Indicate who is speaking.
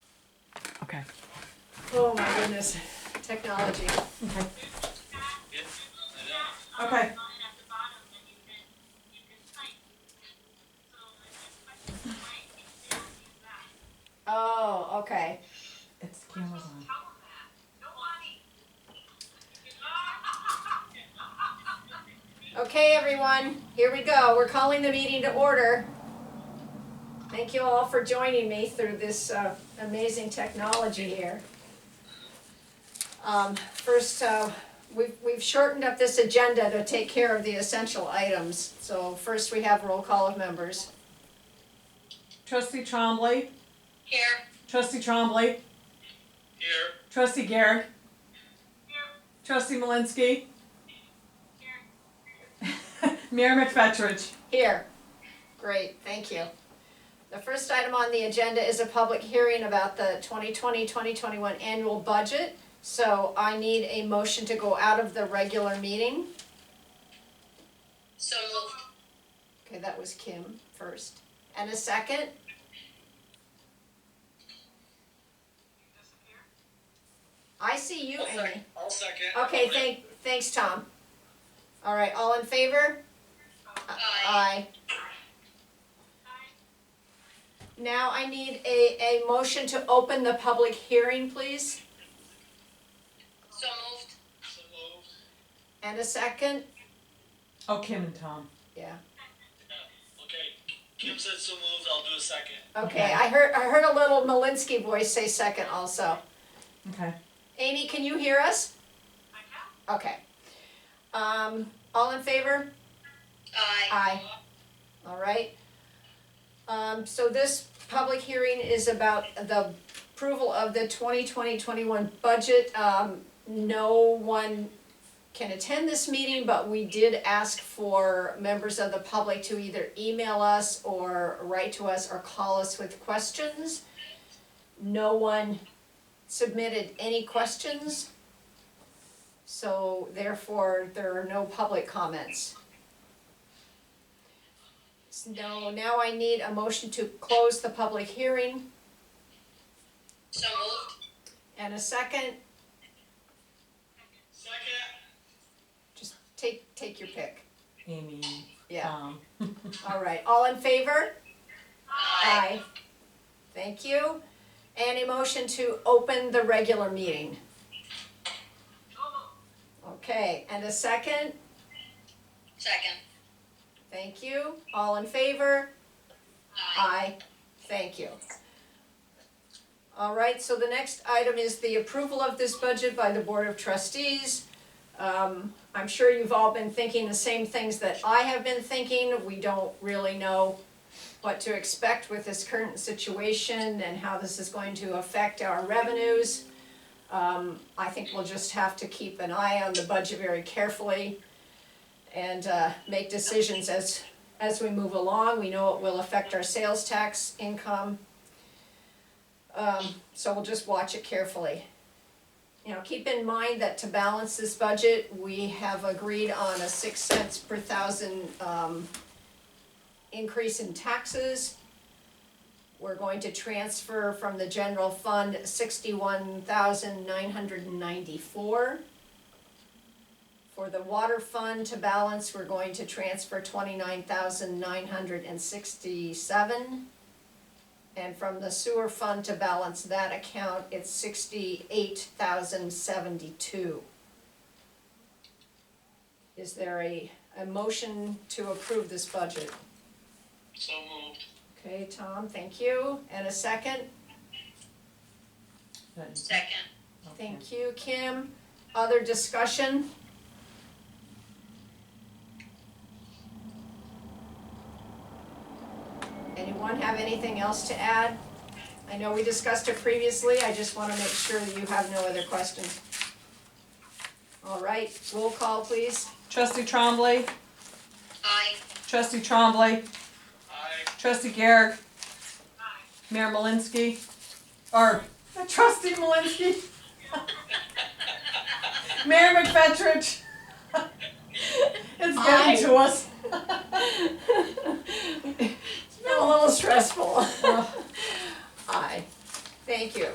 Speaker 1: Okay.
Speaker 2: Oh my goodness, technology.
Speaker 1: Okay. Okay.
Speaker 2: Oh, okay.
Speaker 1: It's cameras on.
Speaker 2: Okay, everyone, here we go. We're calling the meeting to order. Thank you all for joining me through this uh, amazing technology here. Um, First, uh, we've we've shortened up this agenda to take care of the essential items. So first, we have roll call of members.
Speaker 1: Trustee Trombley,
Speaker 3: Here.
Speaker 1: trustee Trombley,
Speaker 4: Here.
Speaker 1: trustee Garrick. Trustee Malinsky. Mayor McFetrich.
Speaker 2: Here. Great, thank you. The first item on the agenda is a public hearing about the 2020-2021 annual budget. So I need a motion to go out of the regular meeting.
Speaker 3: So moved.
Speaker 2: Okay, that was Kim first. And a second? I see you, Amy.
Speaker 4: I'll second.
Speaker 2: Okay, thank, thanks, Tom. All right, all in favor?
Speaker 3: Aye.
Speaker 2: Aye. Now I need a, a motion to open the public hearing, please,
Speaker 3: So moved.
Speaker 4: So moved.
Speaker 2: and a second.
Speaker 1: Oh, Kim and Tom.
Speaker 2: Yeah,
Speaker 4: Yeah. Okay, Kim said so moved, I'll do a second.
Speaker 2: okay, I heard, I heard a little Malinsky voice say second also.
Speaker 1: Okay.
Speaker 2: Amy, can you hear us? I can. Okay. Um, all in favor?
Speaker 3: Aye.
Speaker 2: Aye. All right. Um, so this public hearing is about the approval of the 2020-21 budget. Um, no one can attend this meeting, but we did ask for members of the public to either email us or write to us or call us with questions. No one submitted any questions. So therefore, there are no public comments. No, now I need a motion to close the public hearing
Speaker 3: So moved.
Speaker 2: and a second,
Speaker 4: Second?
Speaker 2: just take, take your pick.
Speaker 1: Amy.
Speaker 2: Yeah,
Speaker 1: Tom.
Speaker 2: all right, all in favor?
Speaker 3: Aye.
Speaker 2: Thank you. And a motion to open the regular meeting. Okay, and a second,
Speaker 3: Second.
Speaker 2: thank you, all in favor?
Speaker 3: Aye.
Speaker 2: Aye, thank you. All right, so the next item is the approval of this budget by the Board of Trustees. Um, I'm sure you've all been thinking the same things that I have been thinking. We don't really know what to expect with this current situation and how this is going to affect our revenues. Um, I think we'll just have to keep an eye on the budget very carefully and, uh, make decisions as as we move along, we know it will affect our sales tax income. Um, so we'll just watch it carefully. You know, keep in mind that to balance this budget, we have agreed on a six cents per thousand, um, increase in taxes. We're going to transfer from the general fund sixty-one thousand nine hundred and ninety-four. For the water fund to balance, we're going to transfer twenty-nine thousand nine hundred and sixty-seven. And from the sewer fund to balance that account, it's sixty-eight thousand seventy-two. Is there a, a motion to approve this budget?
Speaker 4: So moved.
Speaker 2: Okay, Tom, thank you. And a second?
Speaker 1: That-
Speaker 3: Second.
Speaker 1: okay.
Speaker 2: Thank you, Kim. Other discussion? Anyone have anything else to add? I know we discussed it previously, I just wanna make sure that you have no other questions. All right, roll call please.
Speaker 1: Trustee Trombley,
Speaker 3: Aye.
Speaker 1: trustee Trombley,
Speaker 4: Aye.
Speaker 1: trustee Garrick. Mayor Malinsky. Or trustee Malinsky. Mayor McFetrich. It's
Speaker 2: Aye.
Speaker 1: getting to us.
Speaker 2: It's been a little stressful. Aye, thank you.